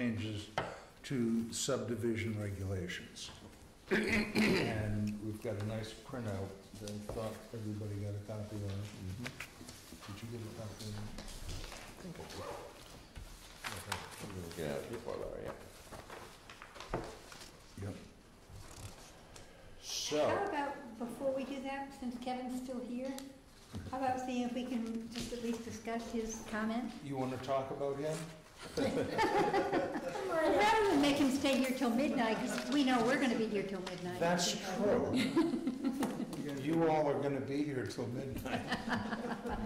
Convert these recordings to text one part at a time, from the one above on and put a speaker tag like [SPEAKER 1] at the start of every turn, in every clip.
[SPEAKER 1] changes to subdivision regulations. And we've got a nice printout that I thought everybody got a copy of. Did you get a copy? of
[SPEAKER 2] Yeah, before Larry, yeah.
[SPEAKER 1] it? Yep.
[SPEAKER 2] So,
[SPEAKER 1] Oh.
[SPEAKER 3] How about, before we do that, since Kevin's still here, how about seeing if we can just at least discuss his comment?
[SPEAKER 1] You want to talk about him?
[SPEAKER 3] Well, Rather than make him stay here till midnight, because we know we're gonna be here till midnight.
[SPEAKER 1] That's true. You all are gonna be here till midnight.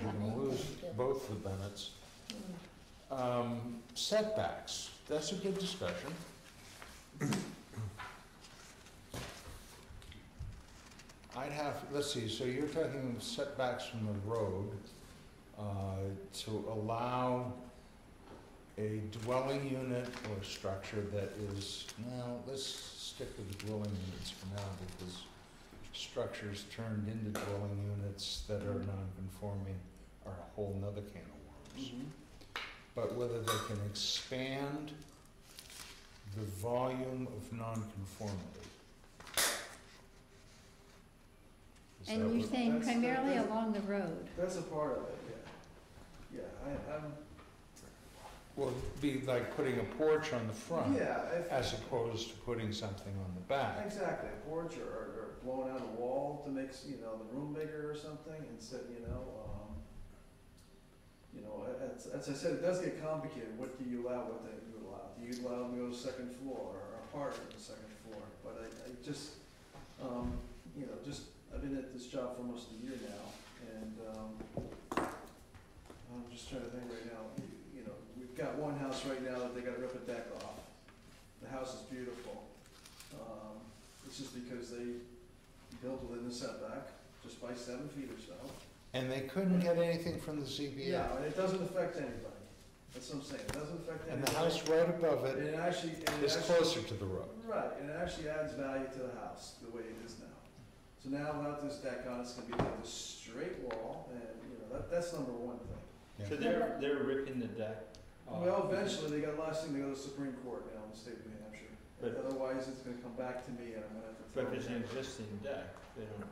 [SPEAKER 1] You're gonna lose both the Bennetts. Um, Setbacks, that's a good discussion. I'd have, let's see, so you're talking setbacks from the road uh, to allow a dwelling unit or structure that is, now, let's stick with the dwelling units for now because structures turned into dwelling units that are non-conforming are a whole nother can of worms.
[SPEAKER 4] Mm-hmm.
[SPEAKER 1] But whether they can expand the volume of non-conformity. Is that
[SPEAKER 3] And you're
[SPEAKER 1] what-
[SPEAKER 3] saying
[SPEAKER 4] that's the-
[SPEAKER 3] primarily along the road.
[SPEAKER 4] That's a part of it, yeah. Yeah, I, I'm,
[SPEAKER 1] Well, it'd be like putting a porch on the front
[SPEAKER 4] yeah, if,
[SPEAKER 1] as opposed to putting something on the back.
[SPEAKER 4] exactly, a porch or, or blowing out a wall to make, s- you know, the room bigger or something instead, you know, um, you know, a- as, as I said, it does get complicated, what do you allow, what don't you allow? Do you allow them to go to second floor or apartment on the second floor? But I, I just, um, you know, just, I've been at this job for almost a year now and, um, I'm just trying to think right now, You- you know, we've got one house right now that they gotta rip a deck off. The house is beautiful. Um, it's just because they built within the setback, just by seven feet or so.
[SPEAKER 1] And they couldn't get anything from the ZBA.
[SPEAKER 4] Yeah, and it doesn't affect anybody. That's what I'm saying, it doesn't affect anybody.
[SPEAKER 1] uh, And the house right above
[SPEAKER 4] And
[SPEAKER 1] it
[SPEAKER 4] it actually, and it
[SPEAKER 1] is
[SPEAKER 4] actually-
[SPEAKER 1] closer to the road.
[SPEAKER 4] Right, and it actually adds value to the house, the way it is now. So now without this deck on, it's gonna be like this straight wall, and, you know, that, that's number one thing.
[SPEAKER 5] So they're, they're ripping the deck off.
[SPEAKER 4] Well, eventually, they got last thing, they go to the Supreme Court now in the state of New Hampshire.
[SPEAKER 5] But-
[SPEAKER 4] Otherwise, it's gonna come back to me, and I'm gonna have to.
[SPEAKER 5] But
[SPEAKER 4] throw
[SPEAKER 5] if it's
[SPEAKER 4] it
[SPEAKER 5] an
[SPEAKER 4] out.
[SPEAKER 5] existing deck, they don't.
[SPEAKER 6] Um,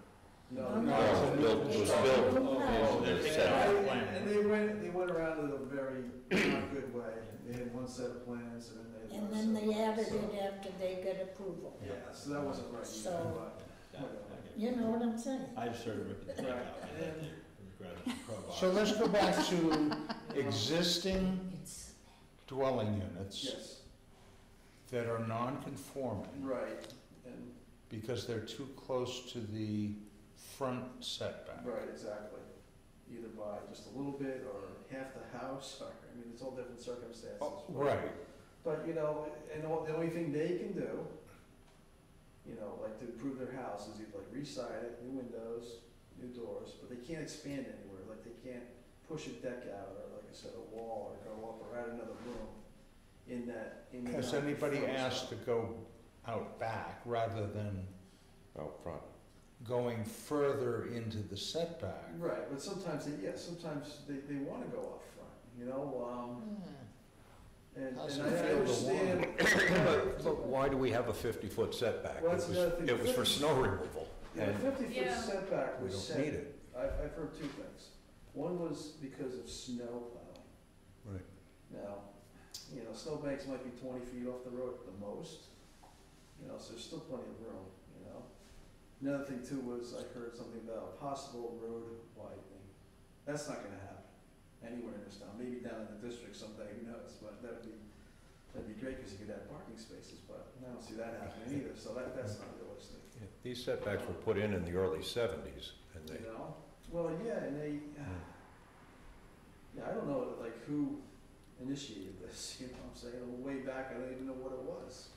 [SPEAKER 2] No,
[SPEAKER 4] No.
[SPEAKER 2] it was built- it was built.
[SPEAKER 5] Oh, they're taking
[SPEAKER 4] And
[SPEAKER 5] out the
[SPEAKER 4] I-
[SPEAKER 5] plan.
[SPEAKER 4] And they went, they went around in a very not good way. They had one set of plans, and then they. had
[SPEAKER 6] And
[SPEAKER 4] another
[SPEAKER 6] then they
[SPEAKER 4] set of
[SPEAKER 6] added
[SPEAKER 4] plans, so-
[SPEAKER 6] it after they got approval.
[SPEAKER 4] Yeah, so that wasn't right. either,
[SPEAKER 6] So-
[SPEAKER 5] Yeah, I get it.
[SPEAKER 6] You know what I'm saying?
[SPEAKER 5] I've started ripping the deck out, and then they regret it, crowbar.
[SPEAKER 1] So let's go back to
[SPEAKER 4] but, you know,
[SPEAKER 1] existing
[SPEAKER 6] It's,
[SPEAKER 1] dwelling units
[SPEAKER 4] Yes,
[SPEAKER 1] that are non-conforming
[SPEAKER 4] right, and,
[SPEAKER 1] because they're too close to the front setback.
[SPEAKER 4] right, exactly. Either by just a little bit, or half the house, or, I mean, it's all different circumstances.
[SPEAKER 1] Oh, Right,
[SPEAKER 4] But, you know, and all- the only thing they can do, you know, like to improve their house is either like re-side it, new windows, new doors, but they can't expand anywhere, like they can't push a deck out or like I said, a wall or go up or add another room in that, in the.
[SPEAKER 1] has anybody
[SPEAKER 4] front
[SPEAKER 1] asked
[SPEAKER 4] side.
[SPEAKER 1] to go out back rather than
[SPEAKER 2] out front.
[SPEAKER 1] going further into the setback?
[SPEAKER 4] Right, but sometimes they, yeah, sometimes they, they wanna go up front, you know, um, and,
[SPEAKER 1] How's
[SPEAKER 4] and
[SPEAKER 1] it
[SPEAKER 4] I
[SPEAKER 1] feel to
[SPEAKER 4] understand.
[SPEAKER 2] But, but why do we have a fifty-foot setback? It
[SPEAKER 4] Well, that's
[SPEAKER 2] was,
[SPEAKER 4] another thing.
[SPEAKER 2] it was for snow removal.
[SPEAKER 4] Yeah,
[SPEAKER 2] And
[SPEAKER 4] fifty foot
[SPEAKER 7] Yeah.
[SPEAKER 4] setback
[SPEAKER 2] we
[SPEAKER 4] was
[SPEAKER 2] don't
[SPEAKER 4] set
[SPEAKER 2] need it.
[SPEAKER 4] I've, I've heard two things. One was because of snow plowing.
[SPEAKER 1] Right.
[SPEAKER 4] Now, you know, snowbanks might be twenty feet off the road at the most, you know, so there's still plenty of room, you know. Another thing too was I heard something about a possible road widening. That's not gonna happen anywhere in this town, maybe down in the district someday, who knows, but that'd be, that'd be great, cause you could have parking spaces, but I don't see that happening either, so that, that's not realistic.
[SPEAKER 2] Yeah, These setbacks were put in in the early seventies, and
[SPEAKER 4] You
[SPEAKER 2] they,
[SPEAKER 4] know? Well, yeah, and they, uh, yeah, I don't know, like, who initiated this, you know what I'm saying? Way back, I don't even know what it was.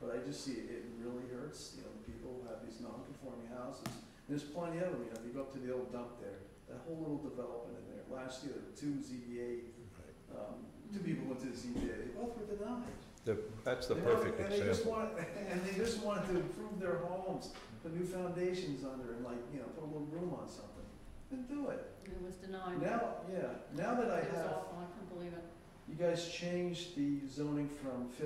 [SPEAKER 4] But I just see it, it really hurts, you know, the people who have these non-conforming houses. And there's plenty of them, you know, if you go up to the old dump there, that whole little development in there. Last year, there were two ZBA, um, two people went to the ZBA, they both were denied.
[SPEAKER 2] the- that's the
[SPEAKER 4] They don't-
[SPEAKER 2] perfect
[SPEAKER 4] And they just
[SPEAKER 2] example.
[SPEAKER 4] want, and they just wanted to improve their homes, put new foundations under and like, you know, put a little room on something. Then do it.
[SPEAKER 7] It was denied.
[SPEAKER 4] Now, yeah, now that I
[SPEAKER 7] It was
[SPEAKER 4] have,
[SPEAKER 7] awful, I couldn't believe it.
[SPEAKER 4] you guys changed the zoning from